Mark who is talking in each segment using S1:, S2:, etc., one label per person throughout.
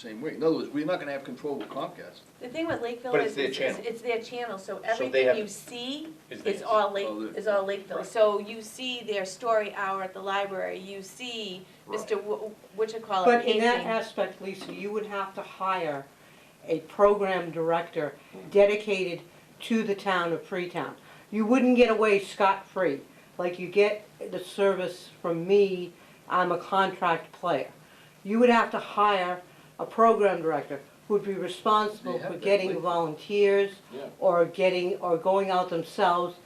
S1: same way. In other words, we're not gonna have control with Comcast.
S2: The thing with Lakeville
S3: But
S2: is,
S3: it's their
S2: is-
S3: channel.
S2: it's their channel, so
S3: have-
S2: everything you see
S3: Is
S2: is
S3: theirs.
S2: all
S1: All
S2: Lake,
S1: theirs.
S2: is all Lakeville.
S3: Right.
S2: So you see their story hour at the library, you see
S3: Right.
S2: Mr. Wh- Whatchacallit
S4: But in
S2: painting.
S4: that aspect, Lisa, you would have to hire a program director dedicated to the town of Freetown. You wouldn't get away scot-free, like you get the service from me, I'm a contract player. You would have to hire a program director who'd be responsible
S1: They have
S4: for
S1: that
S4: getting
S1: link.
S4: volunteers
S1: Yeah.
S4: or getting, or going out themselves,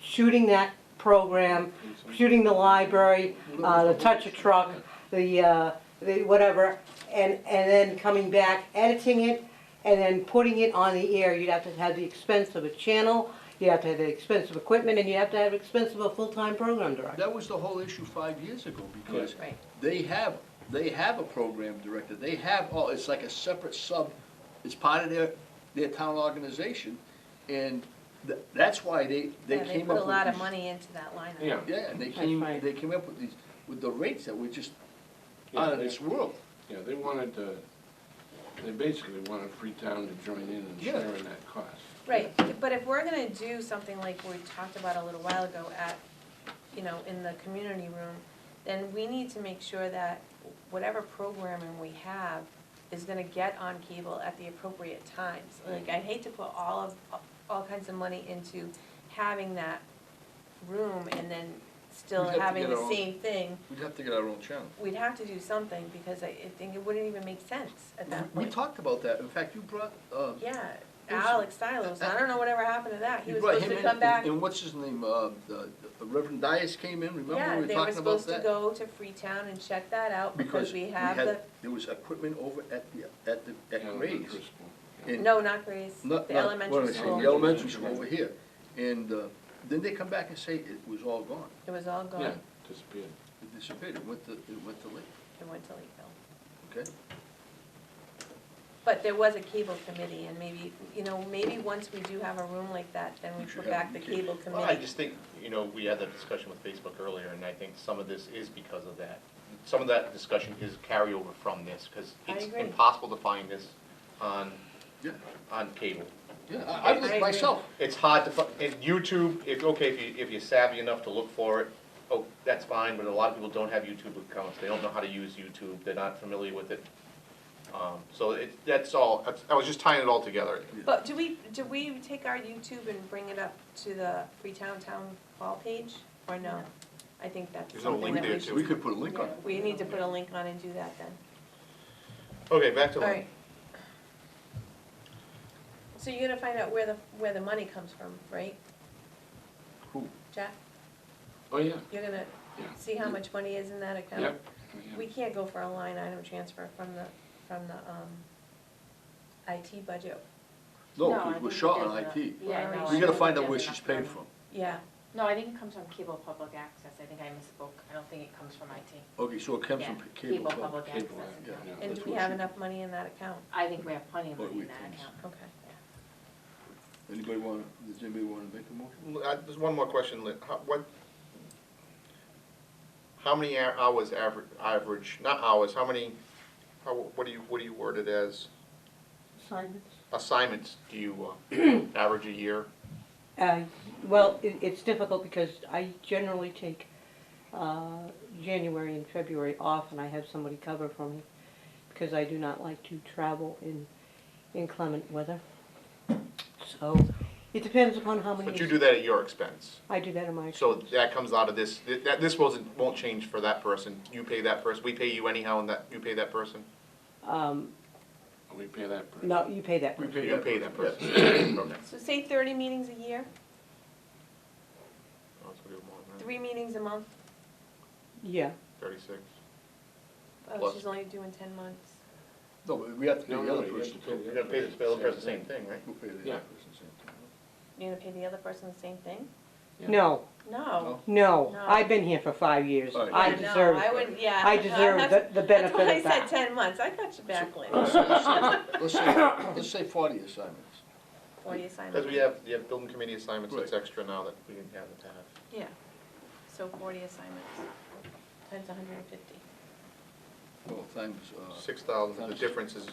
S4: shooting that program, shooting the library, uh, the touch a truck, the, uh, the whatever, and, and then coming back, editing it, and then putting it on the air. You'd have to have the expense of a channel, you'd have to have the expense of equipment, and you have to have expense of a full-time program director.
S1: That was the whole issue five years ago, because
S2: Right.
S1: they have, they have a program director, they have, oh, it's like a separate sub, it's part of their, their town organization, and th- that's why they, they
S2: Yeah, they
S1: came
S2: put a
S1: up with
S2: lot of
S1: these-
S2: money into that line item.
S3: Yeah.
S1: Yeah, and they
S4: That's
S1: came,
S4: right.
S1: they came up with these, with the rates that were just
S5: Yeah,
S1: out of
S5: they-
S1: this world.
S5: Yeah, they wanted, uh, they basically wanted Freetown to join in and
S1: Yeah.
S5: share in that cost.
S2: Right, but if we're gonna do something like we talked about a little while ago at, you know, in the community room, then we need to make sure that whatever programming we have is gonna get on cable at the appropriate times. Like, I hate to put all of, all kinds of money into having that room and then still
S1: We'd have to
S2: having
S1: get
S2: the
S1: our own-
S2: same thing.
S1: We'd have to get our own channel.
S2: We'd have to do something, because I, I think it wouldn't even make sense at that
S1: We
S2: point.
S1: talked about that, in fact, you brought, uh,
S2: Yeah,
S1: Who's-
S2: Alex Silos, I don't know whatever happened to that, he
S1: you
S2: was
S1: brought
S2: supposed
S1: him
S2: to
S1: in,
S2: come back.
S1: and and what's his name, uh, the the Reverend Dias came in, remember, we were
S2: Yeah,
S1: talking about that?
S2: they were supposed to go to Freetown and check that out because we have
S1: had-
S2: the,
S1: There was equipment over at the, at the,
S5: Yeah,
S1: at Gray's.
S5: Chris Paul.
S1: and-
S2: no, not Grace,
S1: not-
S2: the
S1: not- what am
S2: elementary
S1: I saying,
S2: school.
S1: The elementary school over here. And uh, then they come back and say it was all gone.
S2: It was all gone,
S5: Yeah,
S2: it
S5: disappeared.
S1: It disappeared, it went to, it went to Lake,
S2: went to Lakeville.
S1: okay?
S2: But there was a cable committee and maybe, you know, maybe once we do have a room like that, then we
S1: We should have
S2: put back
S1: the
S2: the
S1: cable.
S2: cable
S3: Well, I
S2: committee.
S3: just think, you know, we had that discussion with Facebook earlier, and I think some of this is because of that. Some of that discussion is carryover from this, because
S2: I
S3: it's
S2: agree.
S3: impossible to find this on,
S1: Yeah,
S3: on cable.
S1: yeah, I I
S2: I
S1: was
S2: agree.
S1: myself,
S3: It's hard to, fi- and YouTube, if, okay, if you, if you're savvy enough to look for it, oh, that's fine, but a lot of people don't have YouTube accounts, they don't know how to use YouTube, they're not familiar with it. Um, so it, that's all, That's- I was just tying it all together.
S2: But do we, do we take our YouTube and bring it up to the Freetown Town Hall page or no? I think that's
S3: There's no
S2: something
S3: link
S2: that
S3: there
S2: we
S3: to
S2: should,
S1: we could put a link on it.
S2: we need to put a link on and do that then.
S3: Okay, back to
S2: All
S3: Lynn.
S2: right. So you're gonna find out where the, where the money comes from, right?
S1: Who?
S2: Jack,
S5: Oh, yeah,
S2: you're gonna
S5: Yeah.
S2: see how much money is in that account?
S5: yep. yeah.
S2: We can't go for a line item transfer from the, from the, um, IT budget,
S1: No,
S6: I
S1: 'cause
S6: think
S1: we're
S6: that
S1: short
S6: there's
S1: on
S6: enough-
S1: IT.
S6: Yeah, no, I
S1: We
S6: don't
S1: gotta
S6: think
S1: find out
S6: there's
S1: where
S6: enough
S1: she's paid
S6: money.
S1: from,
S2: yeah.
S6: No, I think it comes from cable public access, I think I misspoke, I don't think it comes from IT.
S1: okay, so it comes
S6: Yeah,
S1: from cable. huh?
S6: public access
S5: Cable, yeah,
S6: account.
S5: yeah.
S2: And
S1: That's
S2: do we
S1: what
S2: have
S1: she-
S2: enough money in that account?
S6: I think we have plenty of
S1: What
S6: money in
S1: we
S6: that
S1: can-
S6: account.
S2: Okay.
S1: Anybody wanna, does anybody wanna make a motion?
S3: L- uh, There's one more question, Lynn. How, what, how many a- hours average, average, not hours, how many, how, what do you, what do you word it as?
S4: Assignments?
S3: Assignments do you uh, average a year?
S4: Uh, well, it, it's difficult because I generally take, uh, January and February off and I have somebody cover for me because I do not like to travel in inclement weather. So it depends upon how many.
S3: But you do that at your expense.
S4: I do that in my.
S3: So that comes out of this, th- that, this wasn't, won't change for that person. You pay that person, we pay you anyhow and that, you pay that person?
S4: Um,
S5: We pay that. per-
S4: no, you pay that.
S1: pay
S3: You pay that person. Okay.
S2: So say thirty meetings a year,
S3: Oh, it's gonna be more than that.
S2: three meetings a month,
S4: Yeah,
S3: Thirty-six.
S2: oh,
S3: Plus-
S2: she's only doing ten months.
S1: No, but we have to pay
S5: No,
S1: the
S5: no,
S1: other
S5: you have
S1: person.
S5: to pay
S1: too.
S5: the
S3: You're
S5: other
S3: gonna pay the
S5: person
S3: person the same thing, right?
S1: We'll pay the
S5: Yeah.
S1: other person same time.
S2: You're gonna pay the other person the same thing?
S5: Yeah.
S4: no,
S2: No.
S4: no,
S2: No.
S4: I've been here for five years,
S1: All right.
S4: I
S2: Yeah, no,
S4: deserve
S2: I
S4: it.
S2: would, yeah.
S4: I
S2: no,
S4: deserve
S2: that's-
S4: the- the benefit of
S2: That's why I said
S4: that.
S2: ten months, I got you back, Lynn,
S1: Let's say, let's say forty assignments.
S2: forty assignments.
S3: Because we have, you have building committee assignments that's
S1: Right.
S3: extra now that we didn't have in the past.
S2: Yeah, so forty assignments, times hundred and fifty.
S1: well, times, uh.
S3: Six thousand, the
S1: Times-
S3: difference is